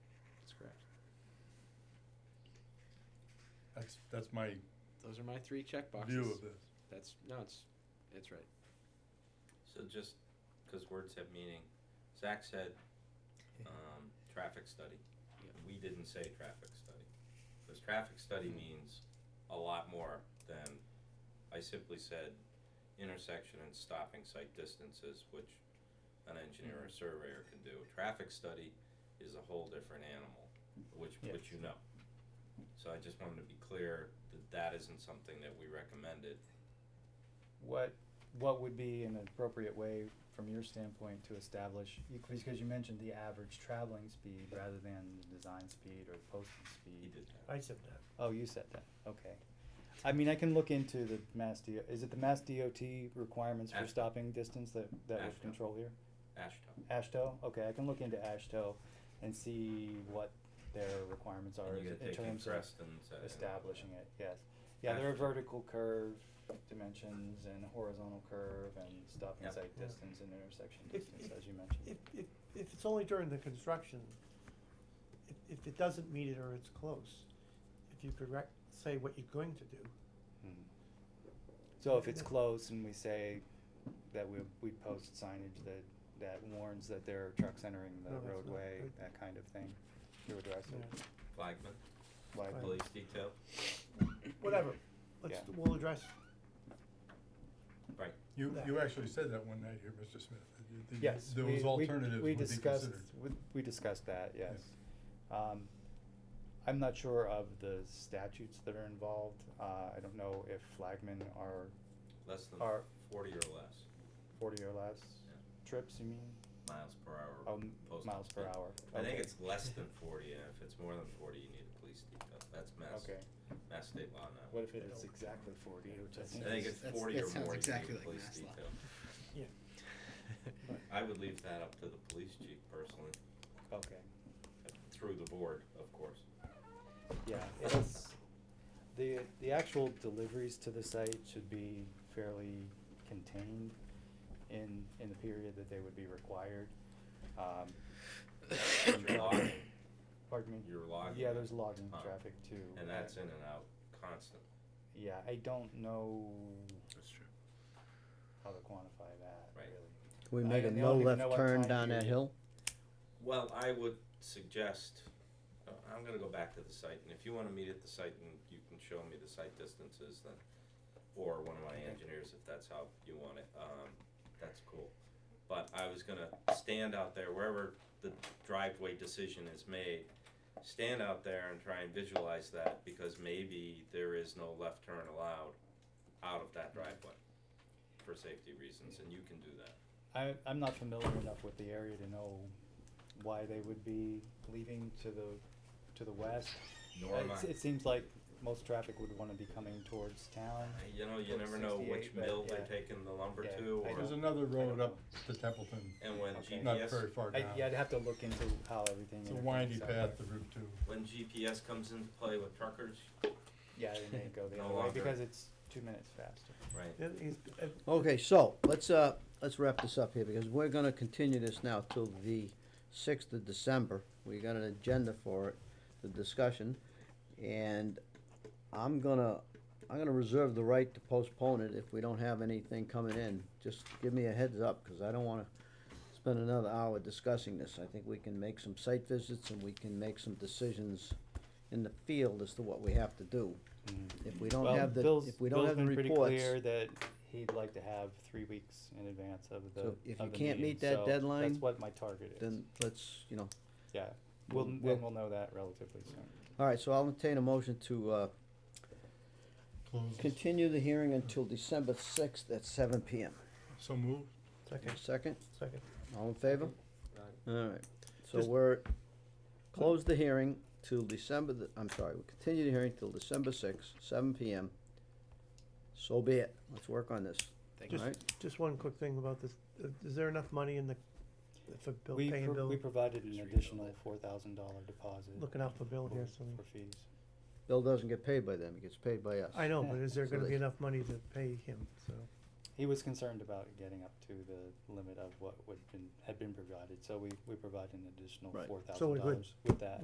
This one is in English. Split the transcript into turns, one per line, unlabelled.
That's, that's my
Those are my three check boxes.
view of this.
That's, no, it's, it's right.
So just, cause words have meaning, Zach said, um, traffic study.
Yeah.
We didn't say traffic study, cause traffic study means a lot more than, I simply said intersection and stopping site distances, which an engineer or surveyor can do. A Traffic study is a whole different animal, which,
Yeah.
which you know. So I just wanted to be clear that that isn't something that we recommended.
What, what would be an appropriate way from your standpoint to establish, because you mentioned the average traveling speed rather than the design speed or posted
He
speed.
did that.
I said that.
Oh, you said that, okay. I mean, I can look into the Mass DOT. is it the Mass DOT requirements for
Ashto.
stopping distance that, that
Ashto.
would control here?
Ashton.
Ashto, okay, I can look into Ashto and see what their requirements are
And you
as-
gotta
in
take in
terms of
Preston's, uh,
establishing it, yes. Yeah, there are
Ashto.
vertical curve dimensions and horizontal curve and stop and
Yep.
sight
Yeah.
distance and intersection
If-
distance,
if-
as you mentioned.
If, if, if it's only during the construction, if, if it doesn't meet it or it's close, if you could rec- say what you're going to do,
Hmm. So if it's close and we say that we, we post signage that, that warns that there are trucks entering the
No, that's not
roadway,
good.
that kind of thing, you address
you know,
it,
Flagman,
like,
Right.
police detail,
whatever, let's,
Yeah.
we'll address,
right,
You,
Yeah.
you actually said that one night here, Mr. Smith. that you- that you-
Yes.
There
we-
was
we-
alternatives
We
would be
discussed,
considered.
we- we discussed that,
Yeah.
yes. Um, I'm not sure of the statutes that are involved. Uh, I don't know if flagmen are
less than
Are-
forty or less
forty or less
Yeah.
trips, you mean?
miles per hour.
Oh, m-
Posted.
miles per hour.
I think
Okay.
it's less than forty, and if it's more than forty, you need a police detail, that's mass,
Okay,
mass state law now.
what if it is exactly forty, which I
That's-
think
I think
is-
it's
That's-
forty
that
or
sounds
more, you need
exactly
a
like
police
mass
detail.
law.
yeah.
I would leave that up to the police chief personally,
Okay,
through the board, of course.
yeah, it's, the, the actual deliveries to the site should be fairly contained in, in the period that they would be required. Um,
Your logging,
Pardon me?
your logging.
Yeah, there's logging
Huh.
traffic too.
Um, And
I-
that's in and out constant.
Yeah, I don't know
That's true.
how to quantify that,
Right.
really.
Can we
I-
make a
and they all
no
need to know
left
what
turn
time
down that
period.
hill?
Well, I would suggest, uh, I'm gonna go back to the site, and if you wanna meet at the site and you can show me the site distances, then, or one of my engineers, if that's how you want it, um, that's cool. But I was gonna stand out there, wherever the driveway decision is made, stand out there and try and visualize that, because maybe there is no left turn allowed out of that driveway for safety reasons, and you can do that.
I, I'm not familiar enough with the area to know why they would be leaving to the, to the west.
Nor am
It's-
I.
It seems like most traffic would wanna be coming towards town.
You know, you
Or
never know which
68, but
mill they're
yeah.
taking the lumber
Yeah,
to,
I
or,
don't-
There's another road
know.
up to Templeton,
and when
Okay.
GPS.
not very far
I,
down.
yeah, I'd have to look into how everything.
It's a
interconnects
windy
out
path, the
there.
Route Two.
When GPS comes into play with truckers,
Yeah, they may go the
No
other way
longer.
because it's two minutes faster.
right,
Then is- if-
Okay, so, let's, uh, let's wrap this up here, because we're gonna continue this now till the sixth of December. We got an agenda for it, the discussion, and I'm gonna, I'm gonna reserve the right to postpone it if we don't have anything coming in. Just give me a heads up, cause I don't wanna spend another hour discussing this. I think we can make some site visits and we can make some decisions in the field as to what we have to do. If we don't
Well,
have the,
Bill's-
if we don't
Bill's
have the
been
reports.
pretty clear that he'd like to have three weeks in advance of the.
So if
of
you
the
can't
meeting,
meet that
so
deadline,
That's what my target is.
then let's, you know,
Yeah, we'll,
we'll-
then we'll know that relatively soon.
all right, so I'll entertain a motion to, uh,
Closes.
continue the hearing until December sixth at seven P M.
So moved.
Second,
Second,
second.
all in favor?
Aye.
All right, so
Just-
we're, close the hearing till December, the- I'm sorry, we continue the hearing till December sixth, seven P M. So be it, let's work on this,
Thank
all
you.
right?
Just one quick thing about this, Uh, is there enough money in the, for bill,
We,
paying
pro-
bill?
we provided
Just
an
rebuild
additional
it.
four thousand dollar deposit.
Looking out for bill here,
for-
so,
For fees.
Bill doesn't get paid by them, he gets paid by us.
I know, but is there
So
gonna
they-
be enough money to pay him, so?
He was concerned about getting up to the limit of what would been, had been provided, so we, we provided an additional
Right.
four thousand
So we
dollars
would-
with that.